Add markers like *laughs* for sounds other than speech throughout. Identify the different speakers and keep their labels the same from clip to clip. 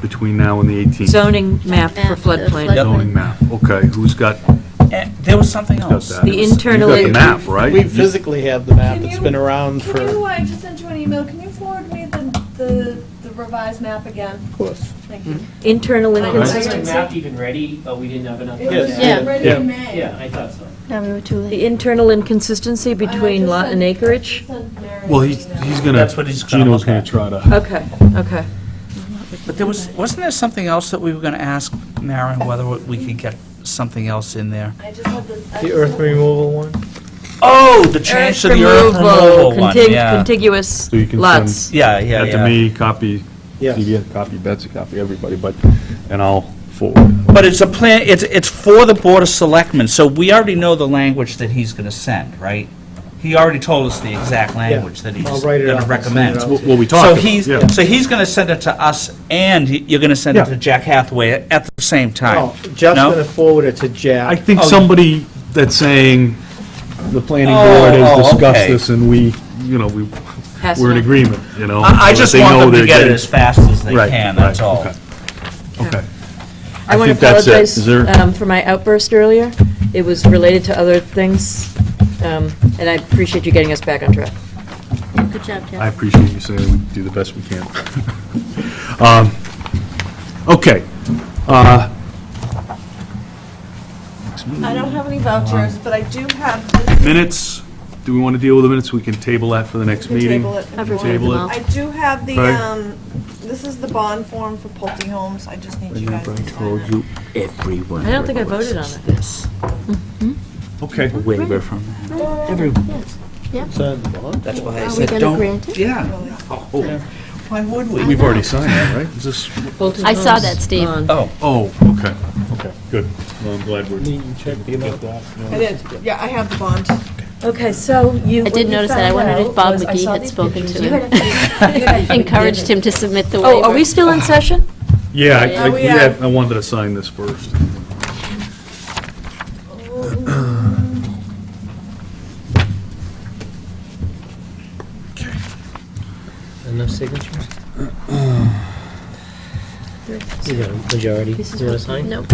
Speaker 1: between now and the 18th?
Speaker 2: Zoning map for
Speaker 3: Map for
Speaker 2: floodplain.
Speaker 3: flood-
Speaker 1: Zoning map, okay, who's got,
Speaker 4: Eh, There was something
Speaker 1: got
Speaker 4: else.
Speaker 1: that?
Speaker 2: The internally-
Speaker 1: You got the map, right?
Speaker 5: We physically have the map,
Speaker 6: Can
Speaker 5: it's
Speaker 6: you-
Speaker 5: been around for,
Speaker 6: Can you,
Speaker 5: of
Speaker 6: I just sent you an email, can you forward me the- the, the revised map again?
Speaker 5: course.
Speaker 6: Thank
Speaker 5: Hmm.
Speaker 6: you.
Speaker 2: Internal
Speaker 6: Right.
Speaker 7: Was
Speaker 2: inconsistency.
Speaker 7: the map even ready, but we didn't have enough? time?
Speaker 5: Yes.
Speaker 3: Yeah.
Speaker 6: Ready
Speaker 5: Yeah.
Speaker 6: in May.
Speaker 7: Yeah, I thought so.
Speaker 3: No, we were too late.
Speaker 2: The internal inconsistency
Speaker 6: I just
Speaker 2: between lot
Speaker 6: sent-
Speaker 2: and acreage?
Speaker 6: I just sent Mary
Speaker 1: Well,
Speaker 6: an
Speaker 1: he's,
Speaker 6: email.
Speaker 1: he's gonna,
Speaker 4: That's what he's gonna
Speaker 1: Gino's
Speaker 4: look
Speaker 1: gonna
Speaker 4: at.
Speaker 1: try to,
Speaker 2: Okay, okay.
Speaker 4: But there was, wasn't there something else that we were going to ask Maren, whether we could get something else in there?
Speaker 6: I just had the. I just
Speaker 5: The earth
Speaker 6: had
Speaker 5: removal one?
Speaker 4: Oh, the change to the earth removal one,
Speaker 2: contig-
Speaker 4: yeah.
Speaker 2: Contiguous
Speaker 1: So you can
Speaker 2: lots.
Speaker 4: Yeah, yeah,
Speaker 1: that to
Speaker 4: yeah.
Speaker 1: me, copy,
Speaker 5: Yes.
Speaker 1: CBS, copy Betsy, copy everybody, but, and I'll forward.
Speaker 4: But it's a plan, it's, it's for the Board of Selectmen, so we already know the language that he's going to send, right? He already told us the exact language that he's
Speaker 5: I'll write it
Speaker 4: going
Speaker 5: up
Speaker 4: to
Speaker 5: and send it
Speaker 4: recommend.
Speaker 5: out.
Speaker 1: What what we
Speaker 4: So
Speaker 1: talked about,
Speaker 4: he's,
Speaker 1: yeah.
Speaker 4: so he's going to send it to us, and he- you're going to send it
Speaker 1: Yeah.
Speaker 4: to Jack Hathaway at the same time?
Speaker 5: Oh, Jeff's
Speaker 4: No?
Speaker 5: gonna forward it to
Speaker 1: I
Speaker 5: Jack.
Speaker 1: think
Speaker 4: Oh, you-
Speaker 1: somebody that's saying, the planning
Speaker 4: Oh,
Speaker 1: board
Speaker 4: oh,
Speaker 1: has discussed
Speaker 4: okay.
Speaker 1: this and we, you know, we,
Speaker 2: Has
Speaker 1: we're in
Speaker 2: to.
Speaker 1: agreement, you know?
Speaker 4: I I
Speaker 1: so that
Speaker 4: just
Speaker 1: they know
Speaker 4: want them
Speaker 1: they're
Speaker 4: to get it
Speaker 1: getting-
Speaker 4: as fast as they
Speaker 1: Right,
Speaker 4: can, that's
Speaker 1: right,
Speaker 4: all.
Speaker 1: okay. Okay.
Speaker 2: I want to
Speaker 1: think that's it.
Speaker 2: apologize
Speaker 1: Is there-
Speaker 2: um, for my outburst earlier. It was related to other things, um, and I appreciate you getting us back on track.
Speaker 3: Good job,
Speaker 1: I
Speaker 3: Jeff.
Speaker 1: appreciate you saying we do the best we can. Um, Okay. uh,
Speaker 6: I don't have any vouchers, but I do have this.
Speaker 1: Minutes, do we want to deal with the minutes? We can table that for the next
Speaker 6: You can
Speaker 1: meeting.
Speaker 6: table it if you
Speaker 2: Everyone
Speaker 6: want.
Speaker 1: Table it.
Speaker 6: I do have the,
Speaker 1: Right.
Speaker 6: um, this is the bond form for Pulte Homes, I just need you guys to sign it.
Speaker 2: I don't think I voted on it.
Speaker 1: Okay.
Speaker 4: Waiver from that. Every,
Speaker 5: Sign the bond.
Speaker 4: that's why I
Speaker 3: Are we
Speaker 4: said,
Speaker 3: gonna
Speaker 4: don't,
Speaker 3: grant it?
Speaker 4: yeah,
Speaker 1: Oh.
Speaker 4: why would we?
Speaker 1: We've already signed that, right? Is this,
Speaker 2: Bolton
Speaker 3: I saw
Speaker 2: Homes
Speaker 3: that, Steve.
Speaker 2: on-
Speaker 4: Oh,
Speaker 1: oh, okay, okay, good. Well, I'm glad we're.
Speaker 5: You check the amount.
Speaker 6: I did, yeah, I have the bond.
Speaker 2: Okay, so you.
Speaker 3: I
Speaker 2: what you
Speaker 3: did notice that. I
Speaker 2: found
Speaker 3: wondered if
Speaker 2: out
Speaker 3: Bob
Speaker 2: was I
Speaker 3: McGee
Speaker 2: saw
Speaker 3: had
Speaker 2: these
Speaker 3: spoken
Speaker 2: pictures.
Speaker 3: to
Speaker 2: You
Speaker 3: him.
Speaker 2: had- you *laughs* had-
Speaker 3: Encouraged him to submit the waiver.
Speaker 2: Oh, are we still in session?
Speaker 1: Yeah, I- I,
Speaker 6: Are
Speaker 1: we
Speaker 6: we,
Speaker 1: had- I wanted to sign this first.
Speaker 8: Enough signatures? You got a majority, you wanna sign?
Speaker 3: Nope.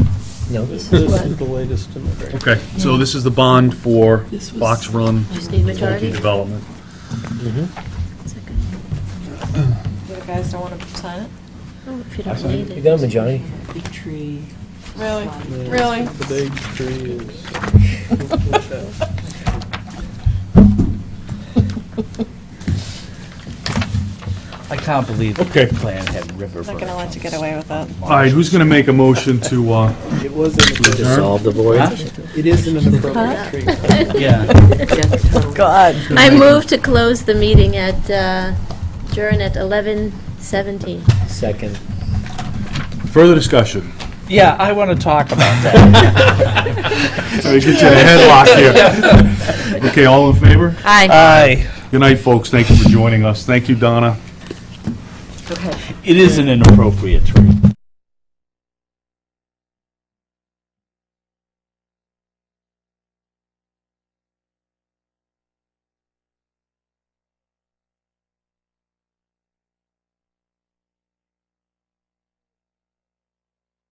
Speaker 8: No.
Speaker 5: This is the latest immigration.
Speaker 1: Okay, so this is the bond for Fox Run
Speaker 3: Just need majority?
Speaker 1: Development.
Speaker 8: Mm-hmm.
Speaker 3: Is that good?
Speaker 6: You guys don't want to sign it?
Speaker 3: Oh, if you don't need
Speaker 8: You
Speaker 3: it.
Speaker 8: got a majority?
Speaker 2: Big tree.
Speaker 6: Really? Really?
Speaker 5: The big tree is.
Speaker 4: I can't believe the
Speaker 1: Okay.
Speaker 4: plan had river.
Speaker 6: Not gonna let you get away with that.
Speaker 1: All right, who's going to make a motion to, uh,
Speaker 5: It was an,
Speaker 8: Dissolve the board?
Speaker 5: it is
Speaker 8: *laughs*
Speaker 5: an inappropriate
Speaker 3: *laughs*
Speaker 5: tree.
Speaker 4: Yeah,
Speaker 3: I move to close the meeting at, uh, adjourn at 11:17.
Speaker 8: Second.
Speaker 1: further discussion?
Speaker 4: yeah, I want to talk about that.
Speaker 1: Let me get you in a headlock here. Okay, all in favor?
Speaker 2: Aye.
Speaker 4: Aye,
Speaker 1: Good night, folks. Thank you for joining us. Thank you, Donna.
Speaker 2: Okay.
Speaker 4: it is an inappropriate tree.